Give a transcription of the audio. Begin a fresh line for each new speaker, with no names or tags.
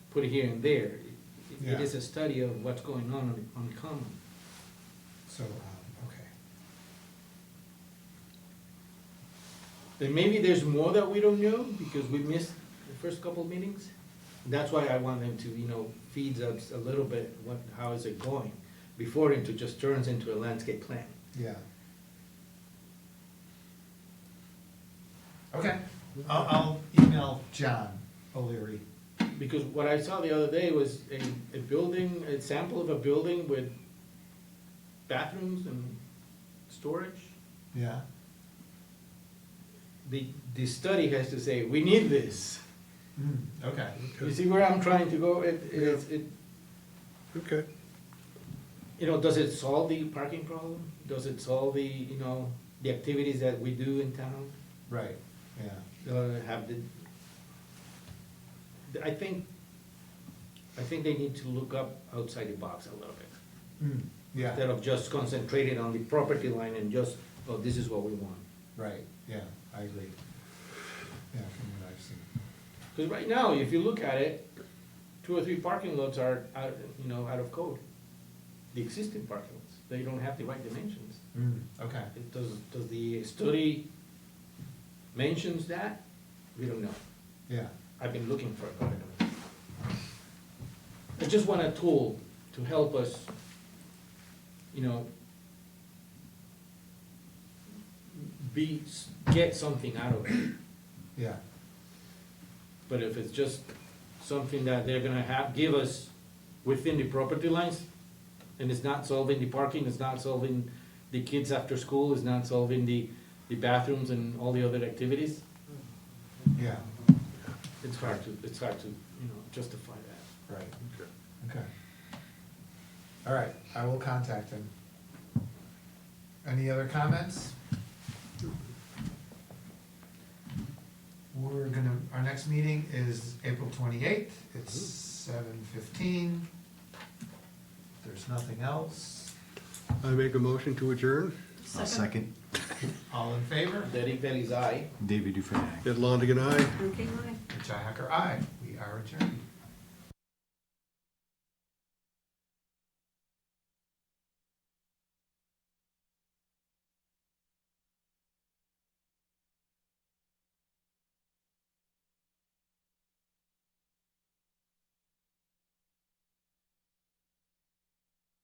put it here and there. It-
Yeah.
It is a study of what's going on on- on common.
So, um, okay,
Then maybe there's more that we don't know because we missed the first couple meetings. That's why I want them to, you know, feed us a little bit, what, how is it going? Before it just turns into a landscape plan.
yeah. Okay, I'll, I'll email John O'Leary.
Because what I saw the other day was a, a building, a sample of a building with bathrooms and storage.
Yeah,
The, the study has to say, we need this.
Mm, okay.
You see where I'm trying to go? It, it, it,
Okay.
you know, does it solve the parking problem? Does it solve the, you know, the activities that we do in town?
Right, yeah.
Uh, have the, I think, I think they need to look up outside the box a little bit.
Mm, Yeah,
Instead of just concentrating on the property line and just, oh, this is what we want.
right, yeah, I agree. Yeah, from what I've seen.
Cause right now, if you look at it, two or three parking lots are, out you know, out of code. The existing parking lots, they don't have the right dimensions.
Mm, okay,
It Does, does the study mentions that? We don't know.
yeah,
I've been looking for it. but I just want a tool to help us, you know, be, get something out of it.
yeah,
But if it's just something that they're gonna have, give us within the property lines, and it's not solving the parking, it's not solving the kids after school, it's not solving the, the bathrooms and all the other activities,
yeah,
it's hard to, it's hard to, you know, justify that.
right, okay. All right, I will contact him. Any other comments? We're gonna, our next meeting is April twenty-eighth, it's seven fifteen. There's nothing else,
I make a motion to adjourn.
I'll second.
all in favor?
Derek Bailey's eye.
David Dufresne.
Ed Longigan, aye.
Okay, aye.
Richi Hacker, aye, we are adjourned.